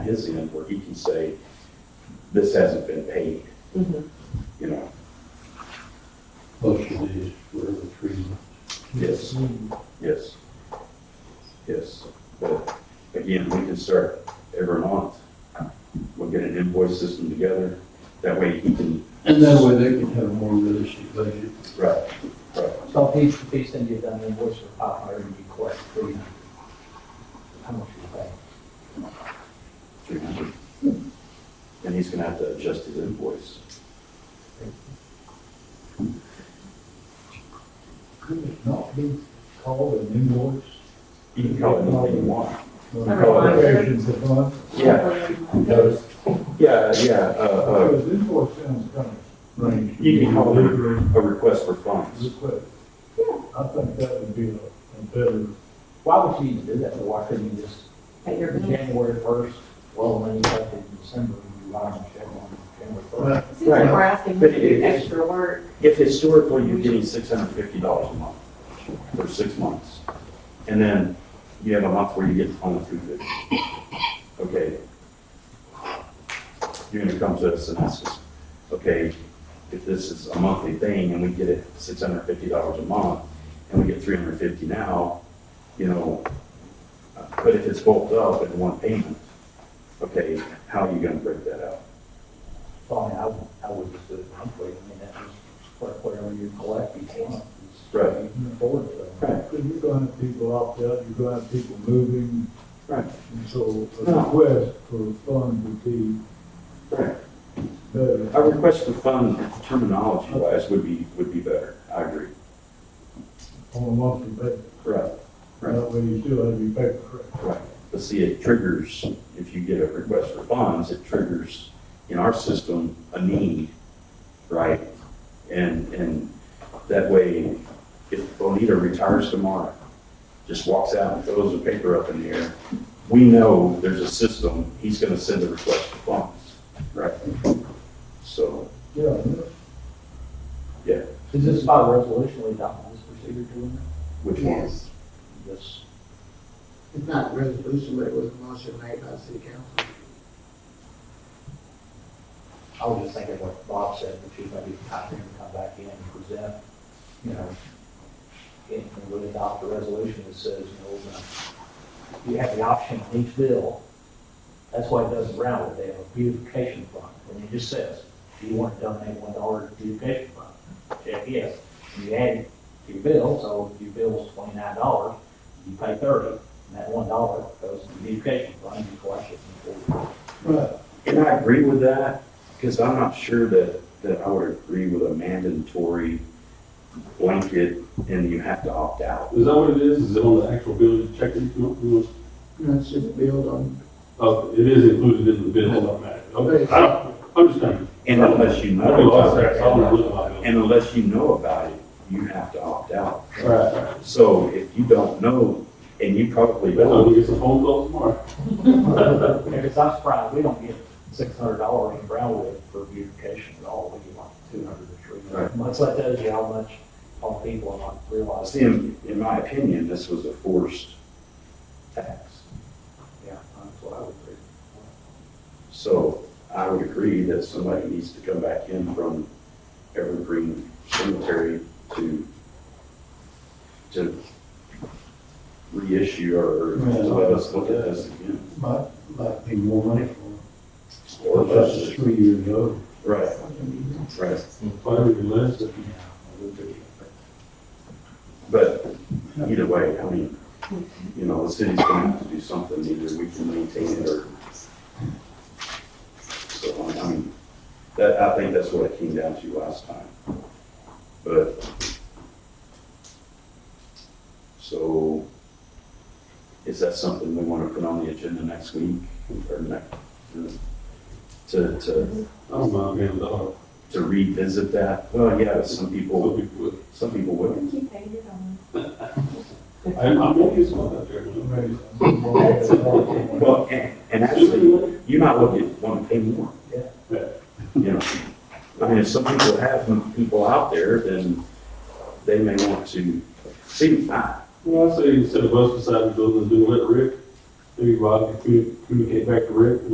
his end where he can say, this hasn't been paid, Mhm. you know, Plus your days for every three months. yes, yes, yes. But again, we can start every month. We'll get an invoice system together, that way he can, And that way they can have a more realistic budget. right, right, So if each, if each thing you done, then what's the five hundred you collect, three hundred? How much you pay? three hundred. And he's gonna have to adjust his invoice. Could it not be called an invoice? He can call it anything you want. A Appropriations of funds? Yeah, Because yeah, yeah, uh, because invoice sounds kind of strange. You can call it Request. uh, a request for funds. I think that would be a a better, Why would you even do that, though? why couldn't you just, At your bill. January first, well, when you collected in December, you write on check on January first? well, It seems like we're asking them to do extra work. If historically you're getting six hundred and fifty dollars a month for six months, and then you have a month where you get only two fifty, okay? You're gonna come to us and ask us, okay, if this is a monthly thing and we get it six hundred and fifty dollars a month, and we get three hundred and fifty now, you know, uh, but if it's bulked up in one payment, okay, how are you gonna break that out? So I mean, I would, I would just do it monthly, I mean, that was, what- whatever you collect each month. is- Right. You can afford it, so. Right, because you're gonna have people opt out, you're gonna have people moving. Right. And so a No. request for funds would be right. better. A request for fund terminology wise would be, would be better, I agree. On a monthly basis, Right. Right. that way you still have your paper correct. Right, but see, it triggers, if you get a request for funds, it triggers in our system a need, right? And, and that way, if Bonita retires tomorrow, just walks out and throws the paper up in the air, we know there's a system, he's gonna send a request for funds, right? So, Yeah, Is this by resolution, we adopted this procedure doing which one? Yes, that? This, it's not a resolution, but it was a motion made by the city council. I was just thinking what Bob said, which is maybe time for him to come back in and present, you know, and and would adopt a resolution that says, you know, we're gonna- you have the option on each bill. That's why it does in Brownwood, they have a beautification fund, and it just says, do you want to donate one dollar to beautification fund? Check yes, And you add it to your bill, so if your bill is twenty-nine dollars, you pay thirty, and that one dollar goes to the beautification fund, you collect it in full. right. And I agree with that, because I'm not sure that, that I would agree with a mandatory blanket and you have to opt out. Is that what it is? Is it on the actual bill you check it? You know, you know, No, it should build on, Oh, it is included in the bill automatically. Okay, I don't, I'm just trying. And unless you I don't know know, I'm sorry, I about don't it, know my bill. and unless you know about it, you have to opt out. All right, all right. So if you don't know, and you probably That's why don't, we get some phone calls tomorrow. Because I'm surprised, we don't get six hundred dollars in Brownwood for beautification at all, we get like two hundred or three Right. hundred. Much like that is how much all people are not see, realizing. in, in my opinion, this was a forced tax. Yeah, that's what I would do. So I would agree that somebody needs to come back in from Evergreen Cemetery to, to reissue or to let us look at this again. Might, might be more money for Or That's just less. three years old. Right, right. Probably less. Yeah, I would do. But either way, I mean, you know, the city's gonna have to do something, either we can maintain it or. So, I mean, that, I think that's what it came down to last time. But. So, is that something we wanna put on the agenda next week or next? To, to, I don't mind being the hard. to revisit that? Well, yeah, some people, some people I would. think you paid it on. I, I'm gonna use one out there. Maybe some more- Well, and, and actually, you might look at, want to pay more. Yeah. Yeah. You know, I mean, if some people have some people out there, then they may want to see, I, Well, I say instead of us deciding to build a new let Rick, maybe Rob can commu- communicate back to Rick,